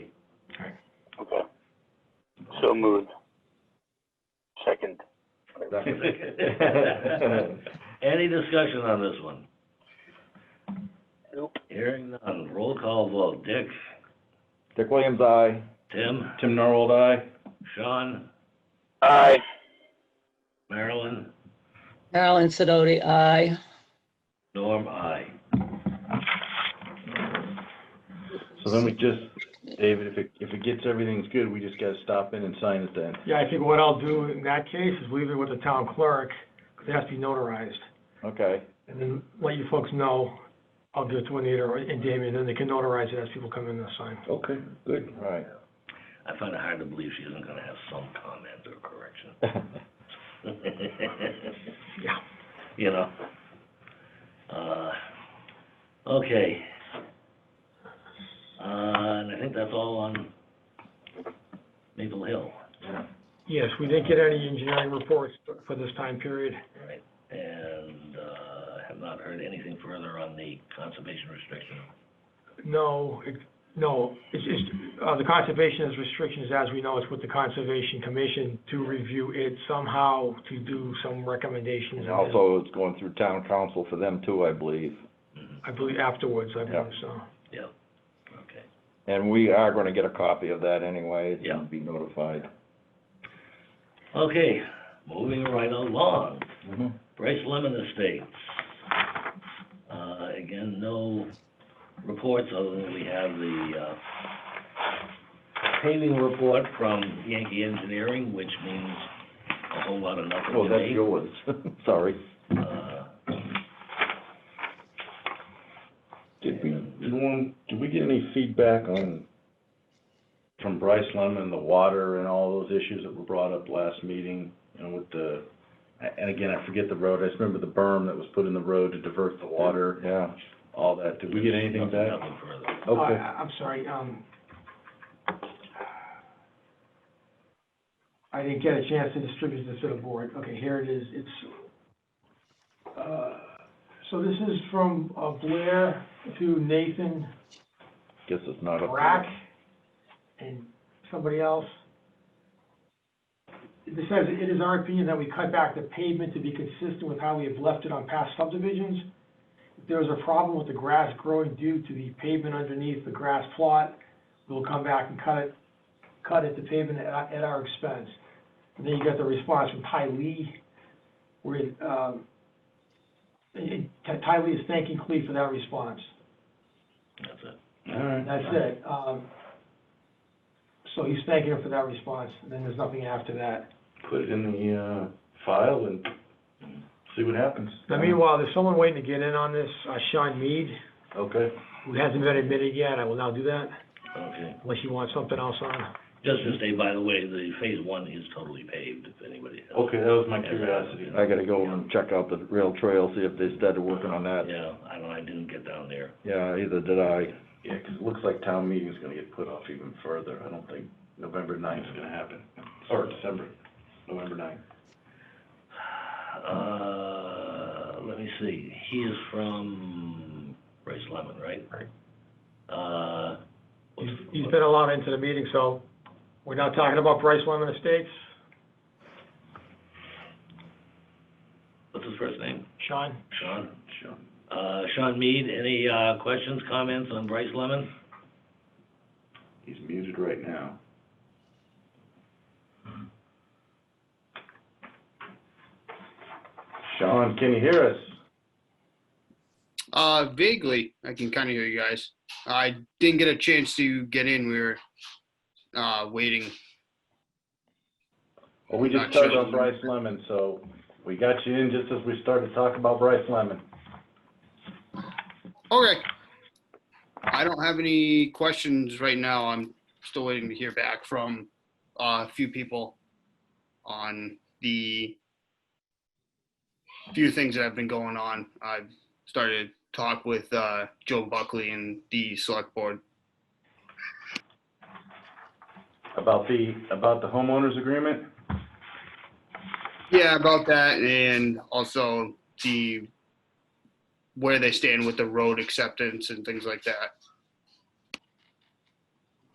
So moved. Second. Any discussion on this one? Nope. Hearing none, roll call vote, Dick, Dick Williams, aye. Tim, Tim Norold, aye. Sean, Aye. Marilyn, Marilyn Sedoti, aye. Norm, I. So then we just, David, if it, if it gets, everything's good, we just gotta stop in and sign it then. Yeah, I think what I'll do in that case is leave it with the town clerk, because it has to be notarized. Okay, And then let you folks know, I'll give it to Anita or- and Damian, and they can notarize it as people come in and sign. Okay, good. all right. I find it hard to believe she isn't gonna have some comment or correction. Yeah. You know? Uh, okay. Uh, and I think that's all on Maple Hill, Yes, we didn't get any engineering reports for this time period. right? And, uh, have not heard anything further on the conservation restriction. No, it, no, it's just, uh, the conservation has restrictions, as we know, it's with the Conservation Commission to review it somehow, to do some recommendations. And also, it's going through town council for them too, I believe. Mhm, I believe afterwards, I Yeah. believe so. Okay. And we are gonna get a copy of that anyway. Yeah. Be notified. Okay, moving right along. Mm-hmm. Bryce Lemon Estates. Uh, again, no reports other than we have the, uh, paving report from Yankee Engineering, which means a whole lot of nothing Oh, to that's me. yours, sorry. Uh, Did we, did one, did we get any feedback on, from Bryce Lemon, the water and all those issues that were brought up last meeting? You know, with the, and again, I forget the road, I just remember the berm that was put in the road to divert the water, Yeah, all that. Did we get anything nothing- back? Nothing further. Uh, Okay, I- I'm sorry, um, I didn't get a chance to distribute this to the board. Okay, here it is. It's, uh, so this is from uh, Blair to Nathan guess it's not up. to- Brack and somebody else. It says, "It is our opinion that we cut back the pavement to be consistent with how we have left it on past subdivisions. If there is a problem with the grass growing due to the pavement underneath the grass plot, we will come back and cut it, cut it to pavement at, our- at our expense." And then you got the response from Ty Lee, where, um, eh, eh, Ty Lee is thanking Cleve for that response. That's it. all right. That's it. Um, so he's thanking him for that response, and then there's nothing after that. Put it in the, uh, file and see what happens. Now meanwhile, there's someone waiting to get in on this, uh, Sean Mead, Okay. who hasn't been admitted yet. I will now do that, Okay. unless you want something else on. Just to say, by the way, the phase one is totally paved, if anybody. Okay, that was my curiosity. I gotta go and check out the rail trail, see if they started working on that. Yeah, I don't, I didn't get down there. Yeah, either did I. Yeah, 'cause it looks like town meeting's gonna get put off even further. I don't think November ninth is gonna happen, or December, November ninth. Uh, let me see, he is from Bryce Lemon, right? Right. Uh, He's, what's- he's been allowed into the meeting, so we're now talking about Bryce Lemon Estates. what's his first name? Sean? Sean? Sure. Uh, Sean Mead, any, uh, questions, comments on Bryce Lemon? He's muted right now. Sean, can you hear us? Uh, vaguely, I can kind of hear you guys. I didn't get a chance to get in. We were uh, waiting. Well, we just Not started sure. on Bryce Lemon, so we got you in just as we started to talk about Bryce Lemon. Okay. I don't have any questions right now. I'm still waiting to hear back from uh, a few people on the few things that have been going on. I've started to talk with uh, Joe Buckley and the select board. About the, about the homeowners agreement? Yeah, about that, and also the where they stand with the road acceptance and things like that.